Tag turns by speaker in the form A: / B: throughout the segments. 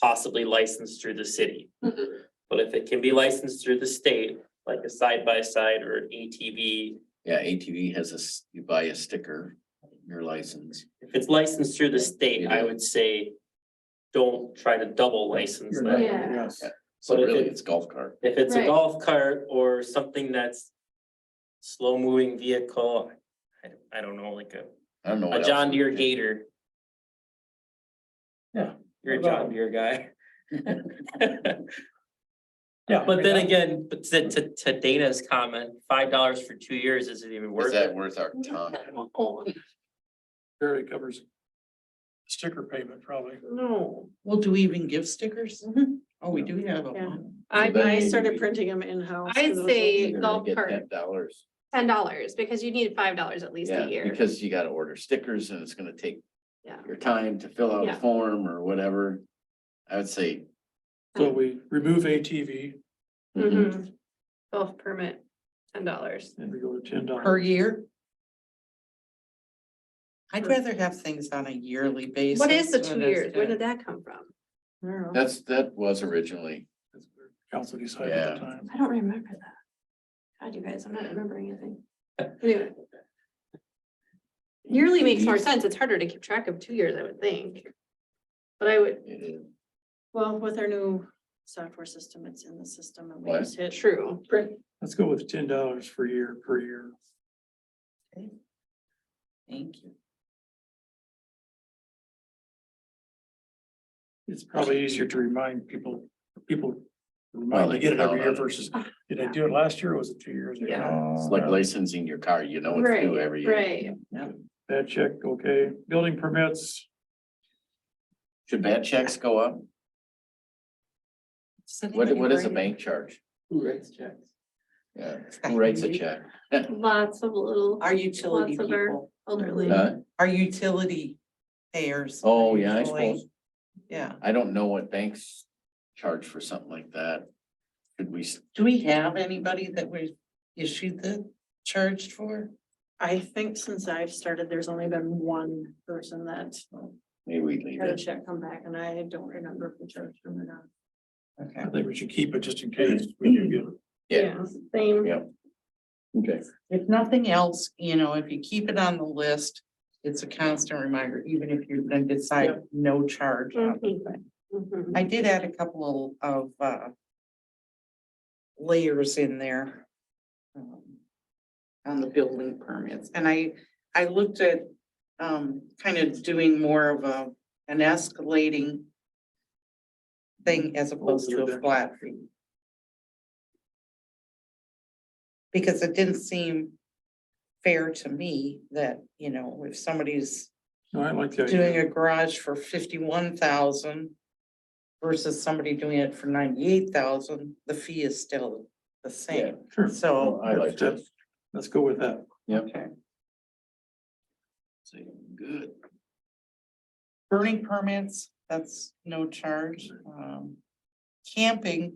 A: possibly licensed through the city.
B: Mm-hmm.
C: Mhm.
A: But if it can be licensed through the state, like a side by side or an E ATV,
D: Yeah, ATV has a, s- you buy a sticker, your license.
A: if it's licensed through the state, I would say. Don't try to double license
B: You're
A: that.
B: not-
C: Yeah.
B: Yes.
D: So
A: But if
D: really,
A: it-
D: it's golf cart.
A: If it's a
C: Right.
A: golf cart or something that's slow moving vehicle, I, I don't know, like a,
D: I don't know. what
A: a
D: else
A: John
D: we
A: Deere
D: can-
A: Gator.
B: Yeah.
A: You're a John Deere guy.
B: Yeah.
A: But then again, but to, to, to Dana's comment, five dollars for two years isn't even
D: Is
A: worth
D: that
A: it.
D: worth our time?
B: Barely covers sticker payment probably.
E: No. Well, do we even give stickers?
C: Mm-hmm.
E: Oh, we do have
F: Yeah.
E: them.
F: I,
D: But-
F: I started printing them in-house.
C: I'd
F: 'cause it was
C: say-
F: like-
D: You're gonna
C: golf
D: get
C: cart.
D: Ten dollars.
C: ten dollars, because you need five dollars at least
D: Yeah,
C: a year.
D: because you gotta order stickers and it's gonna take
C: Yeah.
D: your time to fill out a
C: Yeah.
D: form or whatever. I would say.
B: So
E: Hmm.
B: we remove ATV
F: Mm-hmm.
D: mm-hmm.
C: Mhm. Golf permit, ten dollars.
B: and we go to ten
E: Per
B: dollars.
E: year? I'd rather have things on a yearly basis.
C: What is the two
E: when it's
C: years? Where
E: done.
C: did that come from?
E: I don't know.
D: That's, that was originally,
B: Council decided at the time.
C: I don't remember that. God, you guys, I'm not remembering anything. Anyway. Yearly makes more sense. It's harder to keep track of two years, I would think. But I would,
D: it is.
F: Well, with our new software system, it's in the system and we
D: What?
F: just hit.
C: true.
B: Let's go with ten dollars for year, per year.
E: Okay. Thank you.
B: It's probably easier to remind people, people. Remind they get it every year versus,
E: Ah.
B: did I do it last year or was it two years ago? Uh,
C: Yeah.
D: It's like licensing your car, you know, it's due every
C: Right,
D: year.
C: right.
B: Bad check, okay. Building permits,
D: Should bad checks go up?
E: Does
D: What,
E: anybody
D: what does a
E: write
D: bank charge?
B: Who writes checks?
D: Yeah, who writes a check?
C: Lots of little
E: Our utility
C: Lots of our-
E: people,
C: elderly.
D: Huh?
E: our utility payers.
D: Oh, yeah, I
E: usually.
D: suppose.
E: Yeah.
D: I don't know what banks charge for something like that. Could we, s-
E: Do we have anybody that we issued the charged for?
F: I think since I've started, there's only been one person that
D: maybe we leave
F: had a
D: it?
F: check come back and I don't remember if we charged them or not.
E: Okay.
B: I think we should keep it just in case we do get.
D: Yeah.
C: Same.
D: Yep. Okay.
E: If nothing else, you know, if you keep it on the list, it's a constant reminder, even if you're gonna decide no charge. on it.
C: Mhm.
F: Mhm.
E: I did add a couple of uh. Layers in there. um, On the building permits, and I, I looked at um, kind of doing more of a, an escalating. Thing as opposed to a flat fee. Because it didn't seem fair to me that, you know, if somebody's
B: No, I like the idea.
E: doing a garage for fifty-one thousand versus somebody doing it for ninety-eight thousand, the fee is still the same,
B: Sure.
E: so.
D: I like that.
B: Let's go with that.
D: Yep.
E: Okay.
D: So, Good.
E: Burning permits, that's no charge, um, camping,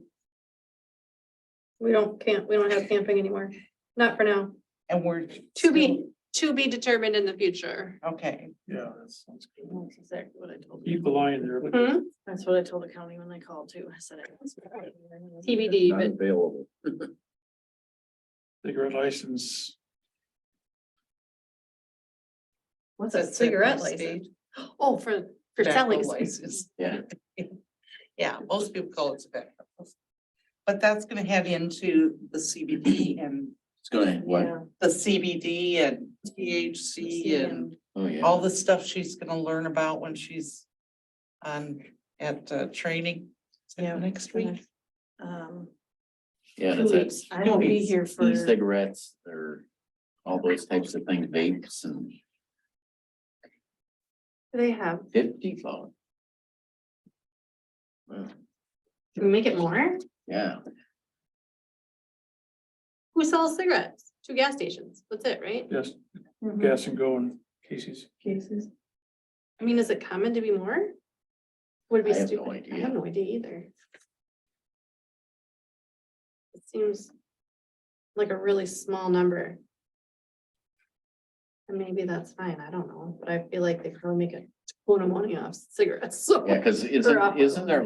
C: We don't camp, we don't have camping anymore. Not for now.
E: and we're.
C: To be, to be determined in the future.
E: Okay,
B: Yeah, that sounds good.
F: That's exactly what I told them.
B: Keep the line there. but-
C: Hmm?
F: That's what I told the county when they called too. I said. it was-
C: TBD,
D: Not
C: but
D: available.
B: Cigarette license,
C: what's
E: That's
C: a
E: it,
C: cigarette
E: that's it.
C: license? Oh, for, for selling.
E: tobacco
C: cigarettes.
E: license.
D: Yeah.
E: Yeah, most people call it tobacco. But that's gonna head into the CBD and
D: It's going, what?
F: Yeah.
E: the CBD and THC and
D: Oh, yeah.
E: all the stuff she's gonna learn about when she's on, at, uh, training. Is that
F: Yeah.
E: Next week.
F: Um,
D: Yeah,
F: two
D: that's it.
F: weeks. I won't be here for.
D: Cigarettes or all those types of things, vapes and
C: They have,
D: fifty phone. Wow,
C: can we make it more?
D: Yeah,
C: Who sells cigarettes? Two gas stations. That's it, right?
B: yes, gas and go and Casey's.
F: Cases.
C: I mean, is it common to be more? Would it be
D: I have no
C: stupid. I
D: idea.
C: have no idea either. It seems like a really small number. And maybe that's fine. I don't know, but I feel like they probably make a ton of money off cigarettes. so-
D: yeah, because
C: off-
D: isn't, isn't there